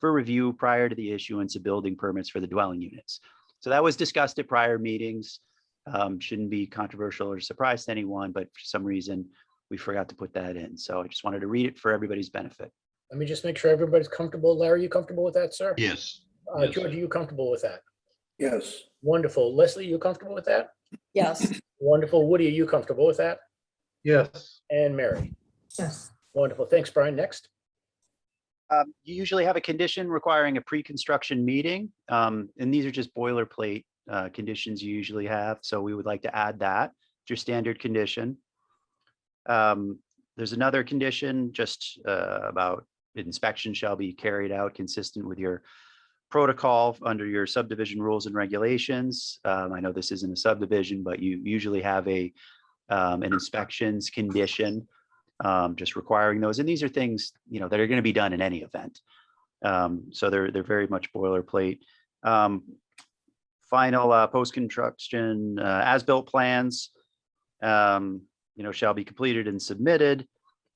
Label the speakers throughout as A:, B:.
A: for review prior to the issuance of building permits for the dwelling units. So that was discussed at prior meetings. Um, Shouldn't be controversial or surprise to anyone, but for some reason, we forgot to put that in. So I just wanted to read it for everybody's benefit.
B: Let me just make sure everybody's comfortable. Larry, you comfortable with that, sir?
C: Yes,
B: Uh,
C: yes.
B: George, are you comfortable with that?
D: Yes,
B: Wonderful. Leslie, you comfortable with that?
E: Yes.
B: Wonderful. Woody, are you comfortable with that?
C: yes,
B: And Mary?
E: Yes.
B: Wonderful. Thanks, Brian. Next.
A: Um, you usually have a condition requiring a pre-construction meeting, um, and these are just boilerplate, uh, conditions you usually have, so we would like to add that, It's your standard condition. Um, there's another condition just, uh, about inspection shall be carried out consistent with your protocol under your subdivision rules and regulations. Um, I know this isn't a subdivision, but you usually have a, um, an inspections condition um, just requiring those. And these are things, you know, that are going to be done in any event. Um, so they're, they're very much boilerplate. Um, final, uh, post-construction, uh, as-built plans, um, you know, shall be completed and submitted,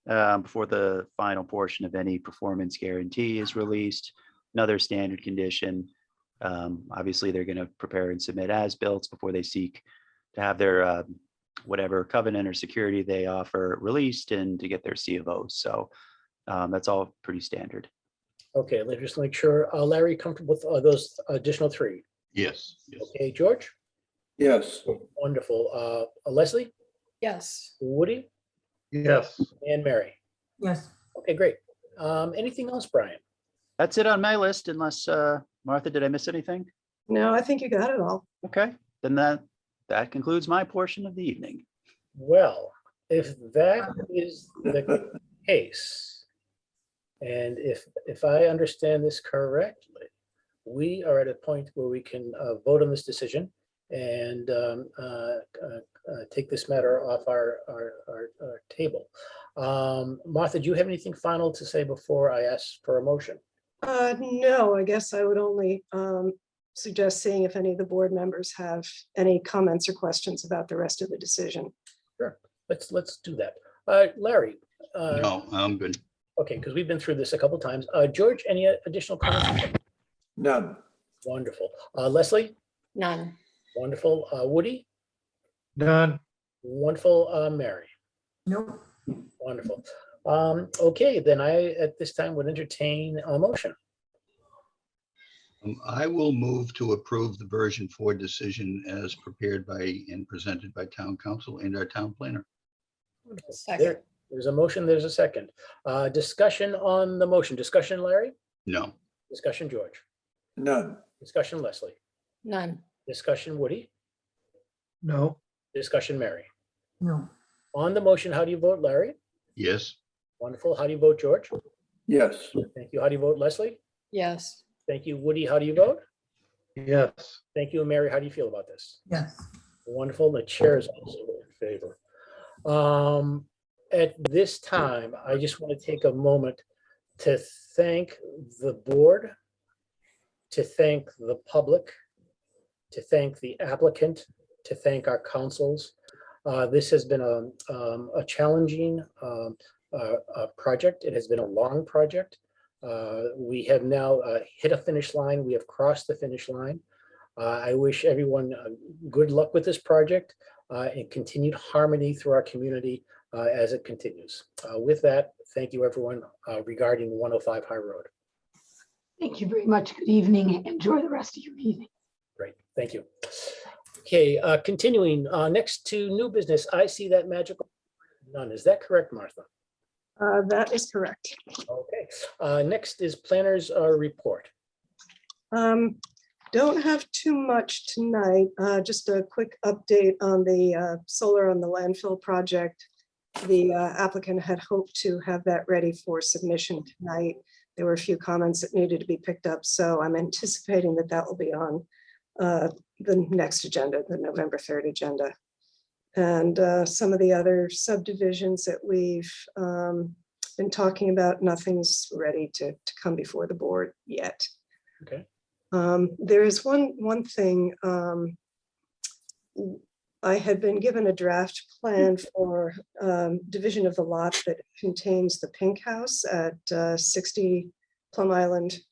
A: um, before the final portion of any performance guarantee is released. Another standard condition. Um, obviously, they're going to prepare and submit as-built before they seek to have their, uh, whatever covenant or security they offer released and to get their C of O. So um, that's all pretty standard.
B: Okay, let's just make sure. Uh, Larry, comfortable with uh, those additional three?
C: yes, yes,
B: Okay, George?
D: yes,
B: Wonderful. Uh, Leslie,
E: Yes.
B: Woody,
C: yes.
B: and Mary?
E: Yes.
B: Okay, great. Um, anything else, Brian?
A: That's it on my list unless uh, Martha, did I miss anything?
E: No, I think you got it all.
A: Okay, then that, that concludes my portion of the evening.
B: Well, if that is the case, and if, if I understand this correctly, we are at a point where we can uh, vote on this decision and um, uh, uh, uh, take this matter off our, our, our- our table. Um, Martha, do you have anything final to say before I ask for a motion?
F: Uh, no, I guess I would only um suggest seeing if any of the board members have any comments or questions about the rest of the decision.
B: Let's, let's do that. Uh, Larry? uh,
C: No, I'm good.
B: Okay, because we've been through this a couple times. Uh, George, any uh, additional comments?
D: none,
B: Wonderful. Uh, Leslie?
E: None.
B: Wonderful. Uh, Woody?
C: Done.
B: Wonderful. Uh, Mary?
E: Nope.
B: Wonderful. Um, okay, then I, at this time, would entertain a motion.
C: Um, I will move to approve the version four decision as prepared by and presented by town council and our town planner.
E: Second.
B: There- There's a motion, there's a second. Uh, discussion on the motion. Discussion, Larry?
C: No,
B: Discussion, George?
D: none,
B: Discussion, Leslie?
E: None.
B: Discussion, Woody?
G: No,
B: Discussion, Mary?
E: No.
B: On the motion, how do you vote, Larry?
C: yes,
B: Wonderful. How do you vote, George?
D: yes,
B: Thank you. How do you vote, Leslie?
E: Yes.
B: Thank you, Woody. How do you vote?
G: yes,
B: Thank you, Mary. How do you feel about this?
E: Yes.
B: Wonderful. The chair is also in favor. Um, At this time, I just want to take a moment to thank the board, to thank the public, to thank the applicant, to thank our councils. Uh, This has been a, um, a challenging um, uh, uh, project. It has been a long project. Uh, We have now uh, hit a finish line. We have crossed the finish line. Uh, I wish everyone uh, good luck with this project uh, and continued harmony through our community uh, as it continues. Uh, With that, thank you, everyone, uh, regarding 105 High Road.
H: Thank you very much. Good evening. Enjoy the rest of your evening.
B: Great, thank you. Okay, uh, continuing, uh, next to new business, I see that magical none. Is that correct, Martha?
F: Uh, that is correct.
B: Okay, uh, next is planners uh, report.
F: Um, don't have too much tonight, uh, just a quick update on the uh, solar on the landfill project. The uh, applicant had hoped to have that ready for submission tonight. There were a few comments that needed to be picked up, so I'm anticipating that that will be on uh, the next agenda, the November third agenda. And uh, some of the other subdivisions that we've um, been talking about, nothing's ready to to come before the board yet. Um, there is one, one thing, um. w- I had been given a draft plan for, um, division of the lot that contains the pink house at, uh, sixty Plum Island